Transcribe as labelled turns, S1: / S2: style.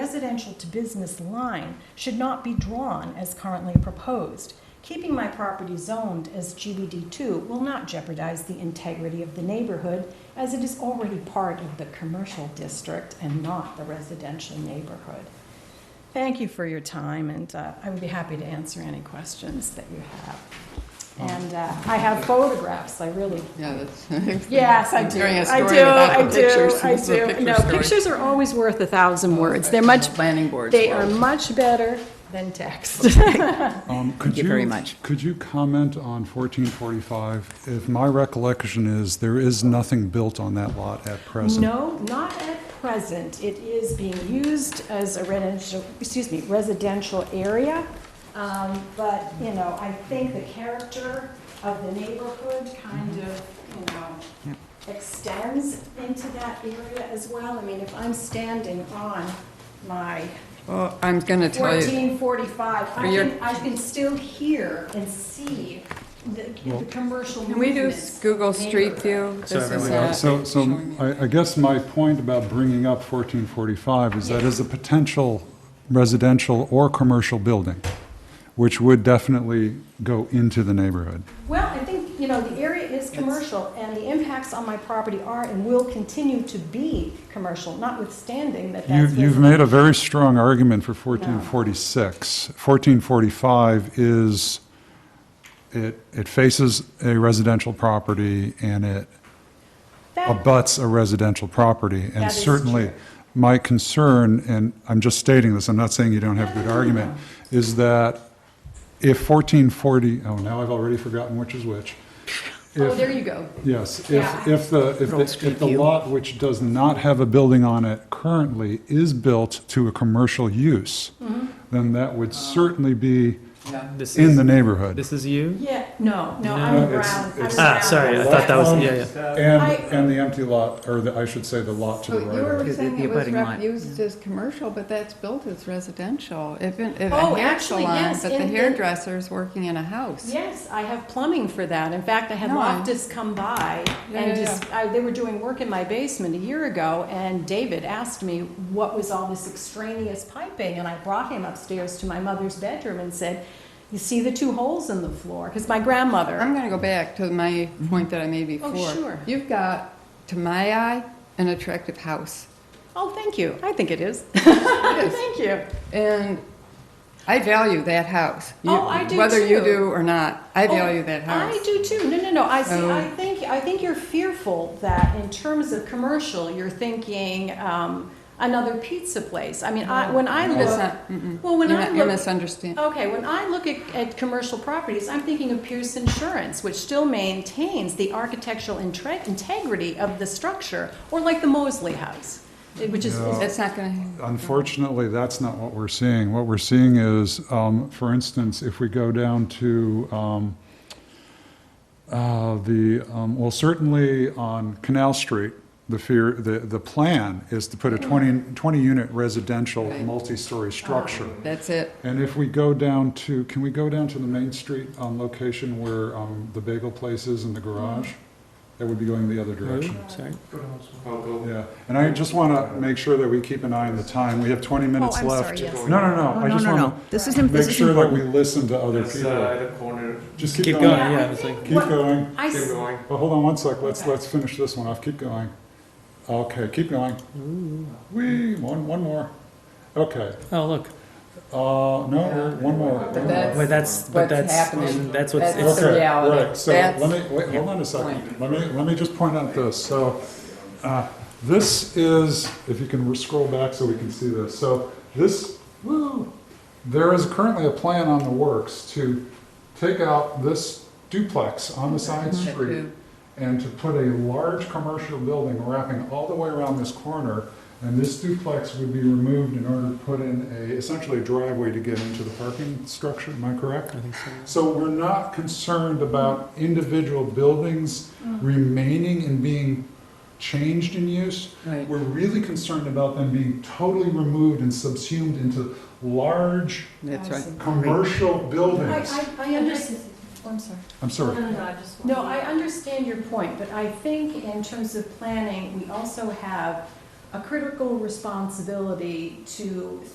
S1: residential to business line should not be drawn as currently proposed. Keeping my property zoned as GBD2 will not jeopardize the integrity of the neighborhood as it is already part of the commercial district and not the residential neighborhood. Thank you for your time, and uh, I would be happy to answer any questions that you have. And uh, I have photographs, I really
S2: Yeah, that's.
S1: Yes, I do.
S2: Telling a
S1: I
S2: story
S1: do.
S2: without
S1: I
S2: the
S1: do.
S2: pictures.
S1: I
S2: It's a
S1: do.
S2: picture
S1: No,
S2: story.
S1: pictures are always worth a thousand words. They're much.
S2: Planning board's
S1: They are
S2: world.
S1: much better than text.
S3: Um,
S2: Thank
S3: could
S2: you very much.
S3: Could you comment on 1445? If my recollection is, there is nothing built on that lot at present.
S1: No, not at present. It is being used as a residential, excuse me, residential area. Um, But, you know, I think the character of the neighborhood kind
S2: Mm-hmm.
S1: of, you know, extends into that area as well. I mean, if I'm standing on my
S2: Well, I'm gonna tell you,
S1: 1445, I
S2: For your-
S1: can, I can still hear and see the, the commercial
S2: can we do
S1: movements.
S2: Google Street View? This is
S3: Uh,
S2: that.
S3: So, so
S2: Showing you.
S3: I, I guess my point about bringing up 1445 is that
S1: Yeah.
S3: is a potential residential or commercial building, which would definitely go into the neighborhood.
S1: Well, I think, you know, the area is commercial, and the impacts on my property are and will continue to be commercial, notwithstanding that that's.
S3: You've, you've
S1: residential.
S3: made a very strong argument for 1446. 1445 is, it, it faces a residential property and it
S1: That-
S3: abuts a residential property.
S1: That
S3: And
S1: is
S3: certainly,
S1: true.
S3: my concern, and I'm just stating this, I'm not saying you don't have a good argument, is that if 1440, oh, now I've already forgotten which is which.
S1: Oh,
S3: If-
S1: there you go.
S3: Yes,
S1: Yeah.
S3: if, if the, if the, if the lot which does not have a building on it currently is built to a commercial use,
S1: Mm-hmm.
S3: then that would certainly be
S2: Yeah.
S4: This
S3: in
S4: is,
S3: the neighborhood.
S4: this is you?
S1: Yeah, no, no, I'm
S3: No,
S1: around.
S3: it's-
S1: I'm
S3: it's-
S4: Ah,
S1: around.
S4: sorry, I thought that was, yeah, yeah.
S3: And,
S1: I-
S3: and the empty lot, or the, I should say, the lot to
S2: So
S3: the
S2: you
S3: right of it.
S2: were
S5: The-
S2: saying
S5: the
S2: it was
S5: abutting
S2: rep-
S5: line.
S2: used as commercial, but that's built as residential. If, it- if
S1: Oh,
S2: a hair
S1: actually,
S2: salon,
S1: yes,
S2: but the
S1: in- in-
S2: hairdresser's working in a house.
S1: Yes, I have plumbing for that. In fact, I had
S2: No, I-
S1: Loftus come by
S2: Yeah,
S1: and
S2: yeah,
S1: just, I, they were doing work in my basement a year ago and David asked me what was all this extraneous piping and I brought him upstairs to my mother's bedroom and said, you see the two holes in the floor? Because my grandmother,
S2: I'm gonna go back to my point that I made before.
S1: Oh, sure.
S2: You've got, to my eye, an attractive house.
S1: oh, thank you. I think it is.
S2: It is.
S1: Thank you.
S2: And I value that house. You-
S1: Oh, I do
S2: Whether you
S1: too.
S2: do or not, I
S1: Oh,
S2: value that house.
S1: I do too. No, no, no. I see.
S2: So-
S1: I think. I think you're fearful that in terms of commercial, you're thinking um, another pizza place. I mean,
S2: Oh,
S1: I, when I
S2: It's
S1: look,
S2: not- mm-mm.
S1: well, when
S2: You
S1: I
S2: mi- You
S1: look,
S2: misunderstand.
S1: okay, when I look at, at commercial properties, I'm thinking of Pierce Insurance, which still maintains the architectural intre- integrity of the structure, or like the Mosley House, eh, which is.
S3: Yeah.
S2: That's not going
S3: Unfortunately, that's not what we're seeing. What we're seeing is, um, for instance, if we go down to, um, uh, the, um, well, certainly on Canal Street, the fear, the, the plan is to put a 20, 20-unit residential
S2: Right.
S3: multi-story structure.
S2: to, that's it.
S3: And if we go down to, can we go down to the Main Street um, location where um, the bagel place is and the garage? That would be going the other direction.
S4: Oh, Sorry.
S3: Yeah, and I just want to make sure that we keep an eye on the time. We have 20 minutes
S1: Oh, I'm
S3: left.
S1: sorry, yes.
S3: No, no, no,
S5: Oh,
S3: I
S5: no,
S3: just
S5: no,
S3: want
S5: no. This is, im-
S3: to make
S5: this is
S3: sure that we
S5: important.
S3: listen to other
S6: It's uh,
S3: people.
S6: at the corner.
S3: Just keep
S4: Keep
S3: going.
S4: going, yeah,
S1: I
S4: it's
S1: think
S4: like,
S3: Keep
S1: what-
S3: going.
S1: I
S6: Keep
S1: s-
S6: going.
S3: Well, hold on one sec, let's, let's finish this one off, keep going. Okay, keep going. Whee, one, one more. Okay,
S4: oh, look,
S3: uh, no, one more. one more.
S2: that's-
S4: but that's, but
S2: What's
S4: that's,
S2: happening.
S4: that's what's,
S2: That's-
S4: it's,
S2: the
S3: Okay,
S2: reality.
S3: Right, so let
S2: That's-
S3: me, wait, hold on a second. Let me, let me just point out this. So, uh, this is, if you can scroll back so we can see this. So this, woo, there is currently a plan on the works to take out this duplex on the side
S2: Mm-hmm.
S3: street and to put a large commercial building wrapping all the way around this corner. And this duplex would be removed in order to put in a, essentially a driveway to get into the parking structure. Am I correct?
S4: I think so.
S3: So we're not concerned about individual buildings remaining and being changed in use.
S2: Right.
S3: We're really concerned about them being totally removed and subsumed into large
S2: That's right.
S3: commercial buildings.
S1: I, I, I understand. Oh, I'm sorry.
S3: I'm sorry.
S1: No, I understand your point, but I think in terms of planning, we also have a critical responsibility to think